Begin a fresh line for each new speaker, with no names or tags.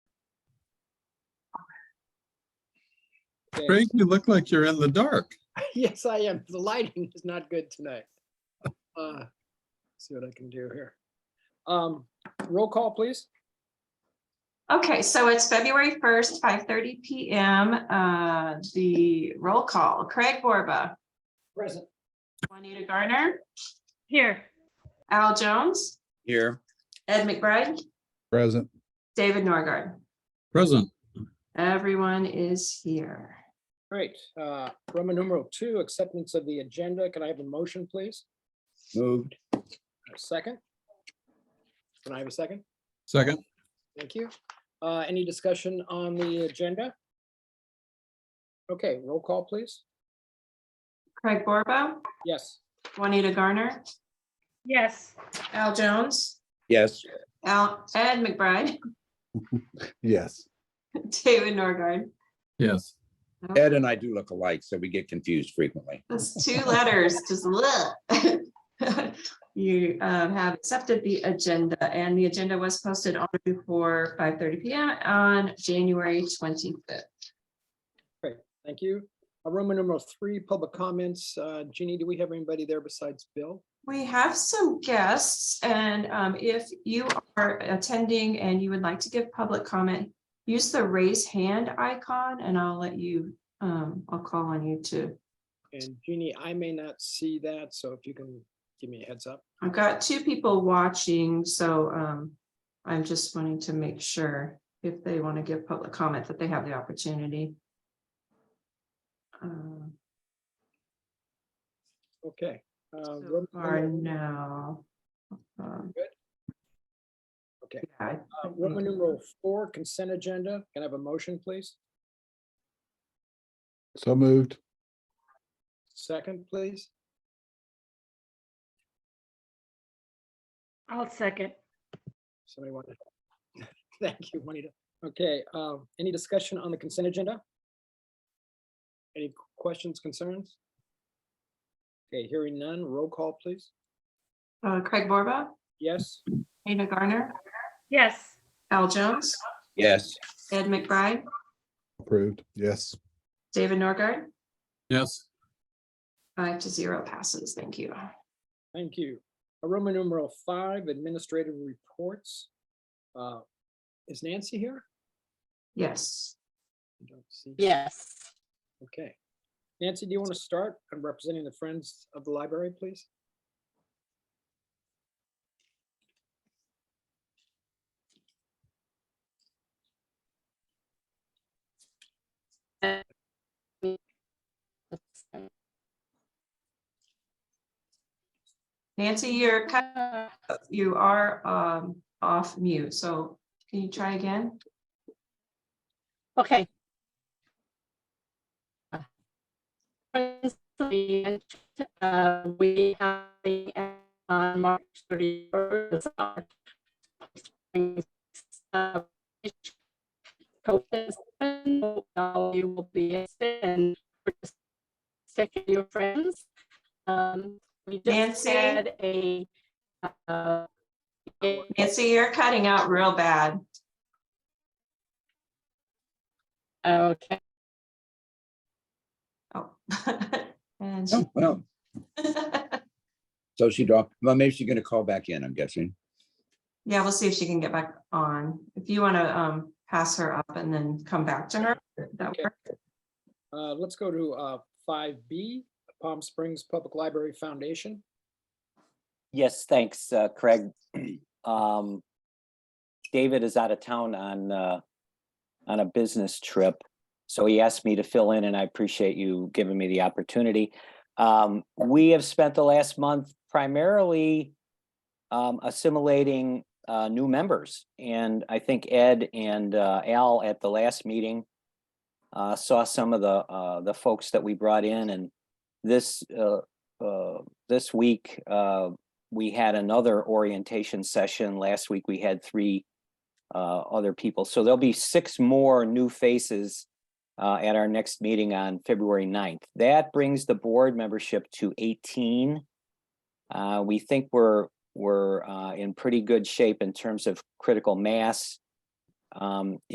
Okay.
Craig, you look like you're in the dark.
Yes, I am. The lighting is not good tonight. Uh, See what I can do here. Um, Roll call, please.
Okay, so it's February first, five thirty PM. Uh, the roll call, Craig Borba,
Present.
Juanita Garner,
Here.
Al Jones,
Here.
Ed McBride,
Present.
David Norgard.
Present.
Everyone is here.
Great. Uh, Roman numeral two, acceptance of the agenda. Can I have a motion, please?
Moved.
A second? Can I have a second?
Second.
Thank you. Uh, Any discussion on the agenda? Okay, roll call, please.
Craig Borba,
Yes.
Juanita Garner,
Yes.
Al Jones,
Yes.
Al, Ed McBride,
Yes.
David Norgard.
Yes.
Ed and I do look alike, so we get confused frequently.
That's two letters, just bleh. You um, have accepted the agenda and the agenda was posted on or before five thirty PM on January twenty-fifth.
Thank you. Uh, Roman numeral three, public comments. Uh, Jeannie, do we have anybody there besides Bill?
We have some guests and um, if you are attending and you would like to give public comment, use the raise hand icon and I'll let you, um, I'll call on you to.
And Jeannie, I may not see that, so if you can give me a heads up.
I've got two people watching, so um, I'm just wanting to make sure if they want to give public comment that they have the opportunity. Um,
Okay. uh,
So
Roman
far,
numeral-
no. Um,
Good. Okay.
yeah, I-
uh, Roman numeral four, consent agenda. Can I have a motion, please?
So moved.
Second, please.
I'll second.
Somebody want to? Thank you, Juanita. Okay, um, any discussion on the consent agenda? Any questions, concerns? Okay, hearing none, roll call, please.
uh, Craig Borba,
Yes,
Nina Garner,
Yes.
Al Jones,
Yes.
Ed McBride,
Approved. Yes.
David Norgard,
Yes.
five to zero passes. Thank you.
thank you. Uh, Roman numeral five, administrative reports. Uh, Is Nancy here?
Yes.
I don't see.
Yes.
Okay. Nancy, do you want to start? I'm representing the Friends of the Library, please.
Nancy, you're cut, you are um, off mute, so can you try again?
Okay. Friends, we, uh, We have the, uh, on March thirty first. You will be extended. Second, your friends. Um, We just
Nancy?
had a. uh, a-
Nancy, you're cutting out real bad.
Okay,
Oh. And she-
Oh, well, So she dropped, well, maybe she's gonna call back in, I'm guessing.
Yeah, we'll see if she can get back on. If you want to um pass her up and then come back to her, that
Okay.
work?
Uh, Let's go to five B, Palm Springs Public Library Foundation.
Yes, thanks, uh, Craig. Um, David is out of town on, uh, on a business trip. So he asked me to fill in and I appreciate you giving me the opportunity. Um, we have spent the last month primarily um, assimilating, uh, new members. And I think Ed and, uh, Al at the last meeting uh, saw some of the, uh, the folks that we brought in and this, uh, uh, this week, uh, we had another orientation session. Last week, we had three uh, other people. So there'll be six more new faces uh, at our next meeting on February 9th. That brings the board membership to 18. Uh, We think we're, we're uh, in pretty good shape in terms of critical mass. Um,